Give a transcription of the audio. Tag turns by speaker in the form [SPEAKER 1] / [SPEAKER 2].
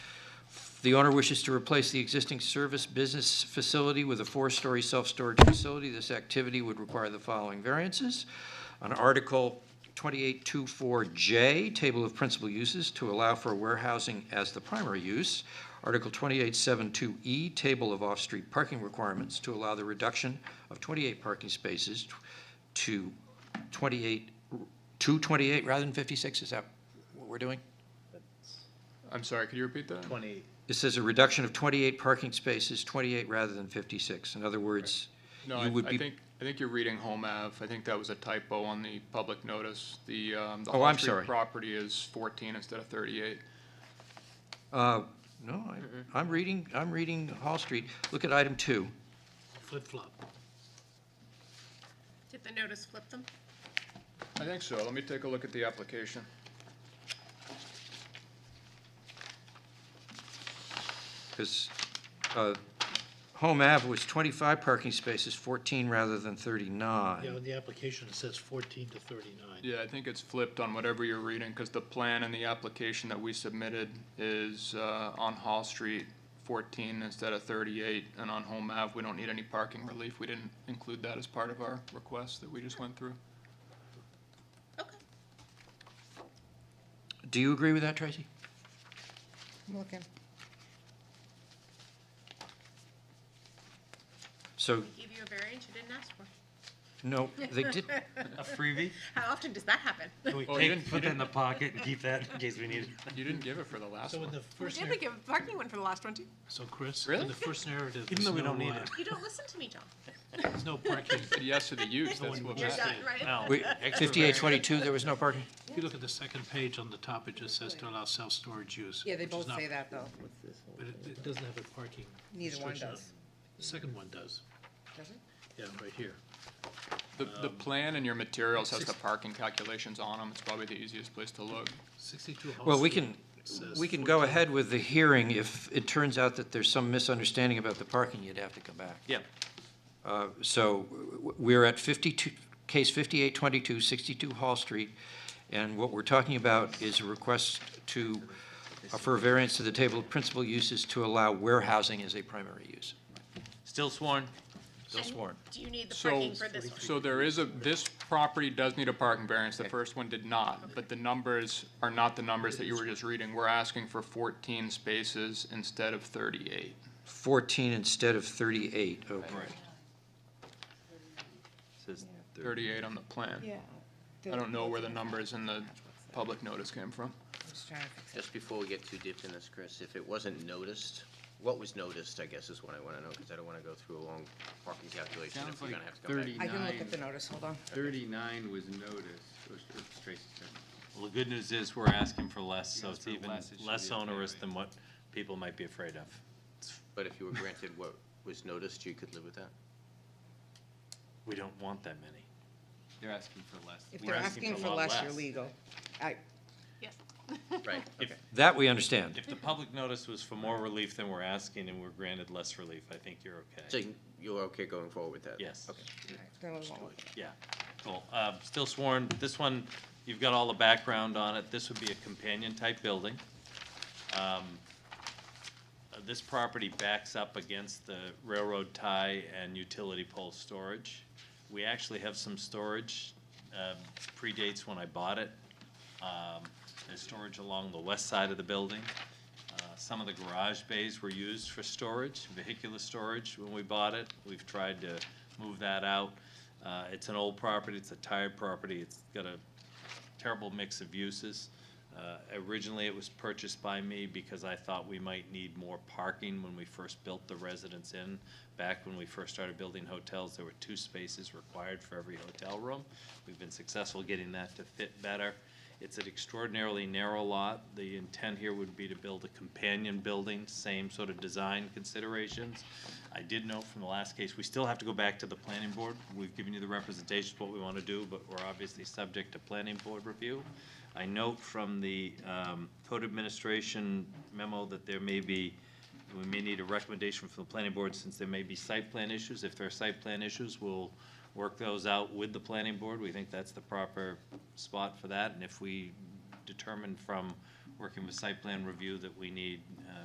[SPEAKER 1] The owner wishes to replace the existing service business facility with a four-story self-storage facility. This activity would require the following variances. On Article 2824J, Table of Principal Uses, to allow for warehousing as the primary use. Article 2872E, E, Table of Off-Street Parking Requirements, to allow the reduction of 28 parking spaces t- to 28, to 28 rather than 56. Is that what we're doing?
[SPEAKER 2] I'm sorry, could you repeat that?
[SPEAKER 3] Twenty,
[SPEAKER 1] It says a reduction of 28 parking spaces, 28 rather than 56. In other words,
[SPEAKER 2] No,
[SPEAKER 1] You
[SPEAKER 2] I,
[SPEAKER 1] would
[SPEAKER 2] I
[SPEAKER 1] be-
[SPEAKER 2] think, I think you're reading Home Ave. I think that was a typo on the public notice. The, um, the
[SPEAKER 1] Oh,
[SPEAKER 2] Hall
[SPEAKER 1] I'm
[SPEAKER 2] Street
[SPEAKER 1] sorry.
[SPEAKER 2] property is fourteen instead of thirty-eight.
[SPEAKER 1] uh, no, I- I'm reading, I'm reading Hall Street. Look at item two.
[SPEAKER 3] flip-flop.
[SPEAKER 4] Did the notice flip them?
[SPEAKER 2] I think so. Let me take a look at the application.
[SPEAKER 1] because uh, Home Ave was 25 parking spaces, 14 rather than
[SPEAKER 3] Yeah,
[SPEAKER 1] 39.
[SPEAKER 3] on the application, it says fourteen to thirty-nine.
[SPEAKER 2] Yeah, I think it's flipped on whatever you're reading, because the plan and the application that we submitted is, uh, on Hall Street, fourteen instead of thirty-eight, and on Home Ave, we don't need any parking relief. We didn't include that as part of our request that we just went through.
[SPEAKER 4] Okay.
[SPEAKER 1] Do you agree with that, Tracy?
[SPEAKER 5] I'm looking.
[SPEAKER 1] So,
[SPEAKER 4] They gave you a variance you didn't ask for.
[SPEAKER 1] no, they did,
[SPEAKER 6] A freebie?
[SPEAKER 4] How often does that happen?
[SPEAKER 6] Can we
[SPEAKER 2] Oh, you
[SPEAKER 6] take,
[SPEAKER 2] didn't- you
[SPEAKER 6] put that in
[SPEAKER 2] didn't-
[SPEAKER 6] the pocket and keep that in case we need it?
[SPEAKER 2] You didn't give it for the last
[SPEAKER 3] So in
[SPEAKER 2] one.
[SPEAKER 3] the first,
[SPEAKER 7] We
[SPEAKER 3] narr-
[SPEAKER 7] did give a parking one for the last one too.
[SPEAKER 3] so Chris,
[SPEAKER 2] Really?
[SPEAKER 3] in the first narrative,
[SPEAKER 6] Even
[SPEAKER 3] there's
[SPEAKER 6] though we
[SPEAKER 3] no,
[SPEAKER 6] don't need
[SPEAKER 3] uh,
[SPEAKER 6] it.
[SPEAKER 4] You don't listen to me, John.
[SPEAKER 3] there's no parking.
[SPEAKER 2] Said Yes to the use,
[SPEAKER 3] No
[SPEAKER 2] that's what
[SPEAKER 3] one would
[SPEAKER 4] You're
[SPEAKER 3] Yes,
[SPEAKER 2] matters.
[SPEAKER 4] done,
[SPEAKER 3] they-
[SPEAKER 4] right?
[SPEAKER 6] No.
[SPEAKER 1] wait, 5822, there was no parking?
[SPEAKER 3] If you look at the second page on the top, it just says to allow self-storage use.
[SPEAKER 5] Yeah, they
[SPEAKER 3] which is
[SPEAKER 5] both
[SPEAKER 3] not-
[SPEAKER 5] say that, though.
[SPEAKER 3] But it, it doesn't have a parking
[SPEAKER 5] Neither one
[SPEAKER 3] restriction on it.
[SPEAKER 5] does.
[SPEAKER 3] The second one does,
[SPEAKER 5] Does it?
[SPEAKER 3] yeah, right here.
[SPEAKER 2] The, the plan and your materials has the parking calculations on them. It's probably the easiest place to look.
[SPEAKER 3] Sixty-two Hall
[SPEAKER 1] Well, we
[SPEAKER 3] Street
[SPEAKER 1] can,
[SPEAKER 3] says
[SPEAKER 1] we can go
[SPEAKER 3] 14.
[SPEAKER 1] ahead with the hearing if it turns out that there's some misunderstanding about the parking, you'd have to come back.
[SPEAKER 6] Yeah.
[SPEAKER 1] Uh, So w- w- we're at 52, case 5822, 62 Hall Street, and what we're talking about is a request to, uh, for a variance to the table of principal uses to allow warehousing as a primary use.
[SPEAKER 6] Still sworn.
[SPEAKER 1] Still
[SPEAKER 4] And
[SPEAKER 1] sworn.
[SPEAKER 4] Do you need the
[SPEAKER 2] So,
[SPEAKER 4] parking for this one?
[SPEAKER 2] so there is a, this property does need a parking variance, the first one did not, but the numbers are not the numbers that you were just reading. We're asking for fourteen spaces instead of thirty-eight.
[SPEAKER 1] 14 instead of 38, okay.
[SPEAKER 6] Says
[SPEAKER 2] Thirty-eight on the plan.
[SPEAKER 5] Yeah.
[SPEAKER 2] I don't know where the numbers in the public notice came from.
[SPEAKER 5] Just trying to fix it.
[SPEAKER 8] Just before we get too deep in this, Chris, if it wasn't noticed, what was noticed, I guess is what I want to know, because I don't want to go through a long parking calculation
[SPEAKER 9] Sounds
[SPEAKER 8] if we're
[SPEAKER 9] like
[SPEAKER 8] going to have to come back.
[SPEAKER 9] 30.
[SPEAKER 5] I can look at the notice, hold on.
[SPEAKER 9] 39 was noticed, or it's Tracy said.
[SPEAKER 6] Well, the good news is we're asking for less, so
[SPEAKER 9] Yes,
[SPEAKER 6] it's
[SPEAKER 9] for
[SPEAKER 6] even
[SPEAKER 9] less, it should
[SPEAKER 6] less
[SPEAKER 9] be okay,
[SPEAKER 6] onerous
[SPEAKER 9] right?
[SPEAKER 6] than what people might be afraid of.
[SPEAKER 8] But if you were granted what was noticed, you could live with that?
[SPEAKER 6] We don't want that many.
[SPEAKER 9] They're asking for less.
[SPEAKER 5] If
[SPEAKER 6] We're
[SPEAKER 5] they're
[SPEAKER 6] asking
[SPEAKER 5] asking
[SPEAKER 6] for a
[SPEAKER 5] for
[SPEAKER 6] lot
[SPEAKER 5] less, you're
[SPEAKER 6] less.
[SPEAKER 5] legal. I,
[SPEAKER 4] Yes.
[SPEAKER 8] Right, okay.
[SPEAKER 1] That we understand.
[SPEAKER 6] If the public notice was for more relief than we're asking and we're granted less relief, I think you're
[SPEAKER 8] So
[SPEAKER 6] okay.
[SPEAKER 8] you're okay going forward with that?
[SPEAKER 6] Yes.
[SPEAKER 8] Okay.
[SPEAKER 5] no, it won't.
[SPEAKER 6] Yeah, cool. Um, Still sworn, this one, you've got all the background on it. This would be a companion-type building. Um, uh, This property backs up against the railroad tie and utility pole storage. We actually have some storage, um, predates when I bought it. Um, There's storage along the west side of the building. Uh, Some of the garage bays were used for storage, vehicular storage, when we bought it. We've tried to move that out. Uh, It's an old property, it's a tired property, it's got a terrible mix of uses. Uh, Originally, it was purchased by me because I thought we might need more parking when we first built the residence in. Back when we first started building hotels, there were two spaces required for every hotel room. We've been successful getting that to fit better. It's an extraordinarily narrow lot. The intent here would be to build a companion building, same sort of design considerations. I did know from the last case, we still have to go back to the planning board. We've given you the representations, of what we want to do, but we're obviously subject to planning board review. I note from the um, code administration memo that there may be, we may need a recommendation from the planning board since there may be site plan issues. If there are site plan issues, we'll work those out with the planning board. We think that's the proper spot for that. And if we determine from working with site plan review that we need uh,